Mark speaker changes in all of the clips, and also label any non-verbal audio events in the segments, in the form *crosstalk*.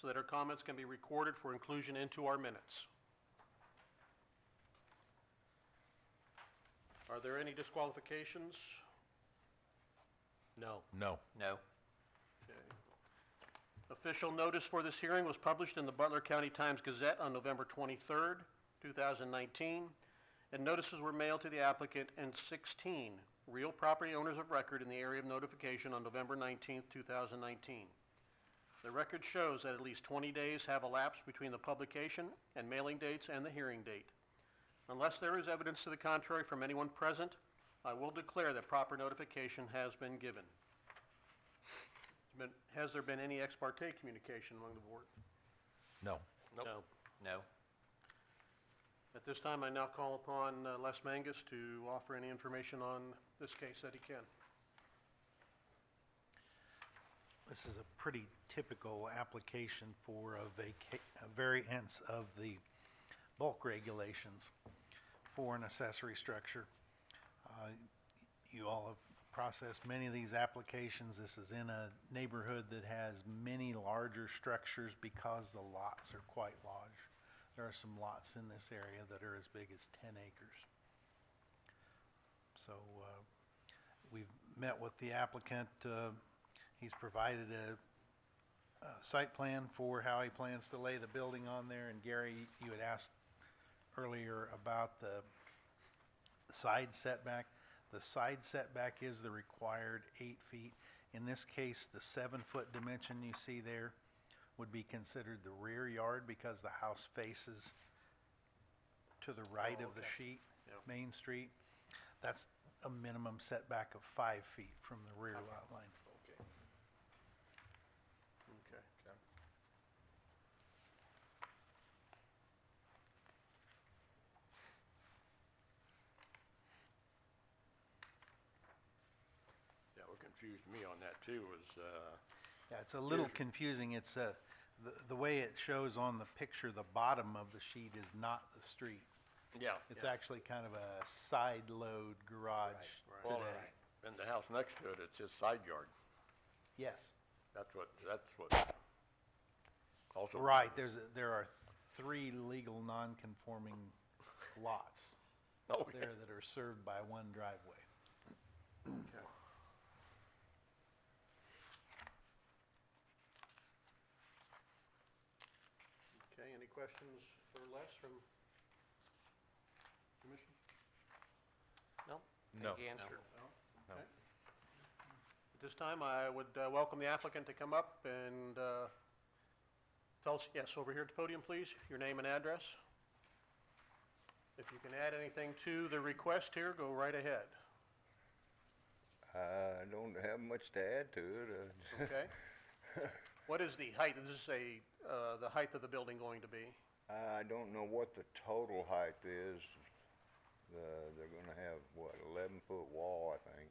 Speaker 1: so that her comments can be recorded for inclusion into our minutes. Are there any disqualifications? No.
Speaker 2: No.
Speaker 3: No.
Speaker 1: Okay. Official notice for this hearing was published in the Butler County Times Gazette on November 23rd, 2019, and notices were mailed to the applicant and 16 real property owners of record in the area of notification on November 19th, 2019. The record shows that at least 20 days have elapsed between the publication and mailing dates and the hearing date. Unless there is evidence to the contrary from anyone present, I will declare that proper notification has been given. Been- Has there been any ex parte communication among the board?
Speaker 2: No.
Speaker 1: No.
Speaker 3: No.
Speaker 1: At this time, I now call upon uh, Les Mangus to offer any information on this case that he can.
Speaker 4: This is a pretty typical application for a vaca, a variance of the bulk regulations for an accessory structure. Uh, You all have processed many of these applications. This is in a neighborhood that has many larger structures because the lots are quite large. There are some lots in this area that are as big as 10 acres. So, uh, We've met with the applicant. uh, He's provided a, a site plan for how he plans to lay the building on there. And Gary, you had asked earlier about the side setback. The side setback is the required eight feet. In this case, the seven-foot dimension you see there would be considered the rear yard because the house faces to the right
Speaker 1: Oh,
Speaker 4: of the
Speaker 1: okay.
Speaker 4: sheet,
Speaker 1: Yeah.
Speaker 4: Main Street. That's a minimum setback of five feet from the rear lot line.
Speaker 1: Okay. Okay.
Speaker 5: Yeah, what confused me on that too was, uh,
Speaker 4: Yeah, it's a little confusing. It's uh the, the way it shows on the picture, the bottom of the sheet is not the street.
Speaker 5: yeah.
Speaker 4: It's actually kind of a side load garage
Speaker 1: Right,
Speaker 5: Well,
Speaker 4: today.
Speaker 5: And the house next to it, it's his side yard.
Speaker 4: Yes.
Speaker 5: That's what, that's what. Also.
Speaker 4: Right, there's, a- there are three legal
Speaker 1: *laughs*
Speaker 4: non-conforming lots
Speaker 1: Oh,
Speaker 5: Okay.
Speaker 4: there that are served by one driveway.
Speaker 1: Okay. Okay, any questions for Les from commission? No?
Speaker 2: No.
Speaker 3: Think you answered.
Speaker 2: No.
Speaker 1: Okay. At this time, I would uh, welcome the applicant to come up and uh, tell us, yes, over here at the podium, please, your name and address. If you can add anything to the request here, go right ahead,
Speaker 6: I don't have much to add to it.
Speaker 4: *laughs*
Speaker 6: Uh,
Speaker 1: okay? What is the height, is this a, uh, the height of the building going to be?
Speaker 6: *laughs* I don't know what the total height is. Uh, They're gonna have, what, 11-foot wall, I think.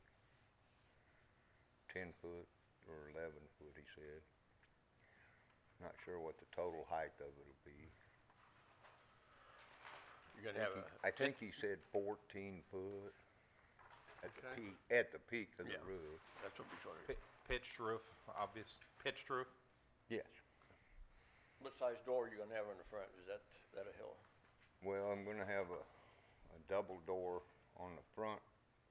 Speaker 6: 10-foot or 11-foot, he said. Not sure what the total height of it'll be.
Speaker 5: You're gonna have a,
Speaker 6: I think he said 14-foot at the
Speaker 1: Okay.
Speaker 6: peak, at the peak of the
Speaker 5: Yeah.
Speaker 6: roof.
Speaker 5: that's what we saw here.
Speaker 2: Pi- Pitched roof, obvious, pitched roof?
Speaker 6: Yes.
Speaker 5: What size door you gonna have in the front? Is that, that a hill?
Speaker 6: Well, I'm gonna have a, a double door on the front,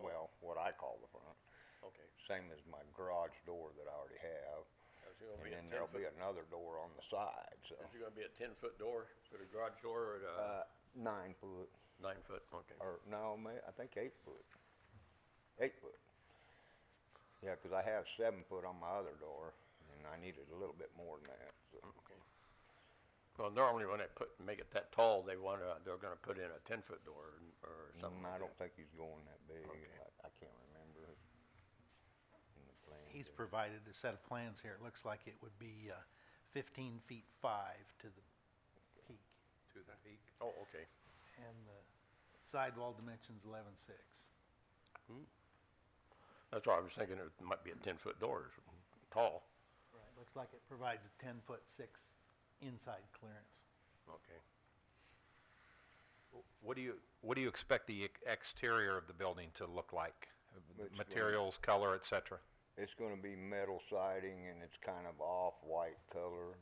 Speaker 6: well, what I call the front.
Speaker 5: Okay.
Speaker 6: same as my garage door that I already have.
Speaker 5: Is it gonna
Speaker 6: And
Speaker 5: be a
Speaker 6: then there'll be
Speaker 5: 10 -foot?
Speaker 6: another door on the side, so.
Speaker 5: Is it gonna be a ten-foot door, put a garage door or a
Speaker 6: Uh, nine foot,
Speaker 5: nine-foot? Okay.
Speaker 6: or no, ma- I think eight foot. Eight foot. Yeah, 'cause I have seven foot on my other door, and I needed a little bit more than that, so.
Speaker 5: Okay. Well, normally when they put, make it that tall, they want to, they're gonna put in a ten-foot door or something
Speaker 6: And I
Speaker 5: like
Speaker 6: don't
Speaker 5: that.
Speaker 6: think he's going that big.
Speaker 5: Okay.
Speaker 6: I, I can't remember in the plan.
Speaker 4: He's
Speaker 6: but-
Speaker 4: provided a set of plans here. It looks like it would be uh, 15 feet 5 to the peak,
Speaker 2: To the peak.
Speaker 5: Oh, okay.
Speaker 4: and the sidewall dimension's 11.6.
Speaker 5: That's why I was thinking it might be a ten-foot door, or something, tall.
Speaker 4: Right. Looks like it provides 10-foot 6 inside clearance.
Speaker 5: Okay.
Speaker 2: What do you, what do you expect the ex- exterior of the building to look like?
Speaker 6: Which one?
Speaker 2: Materials, color, et cetera?
Speaker 6: It's gonna be metal siding and it's kind of off-white color.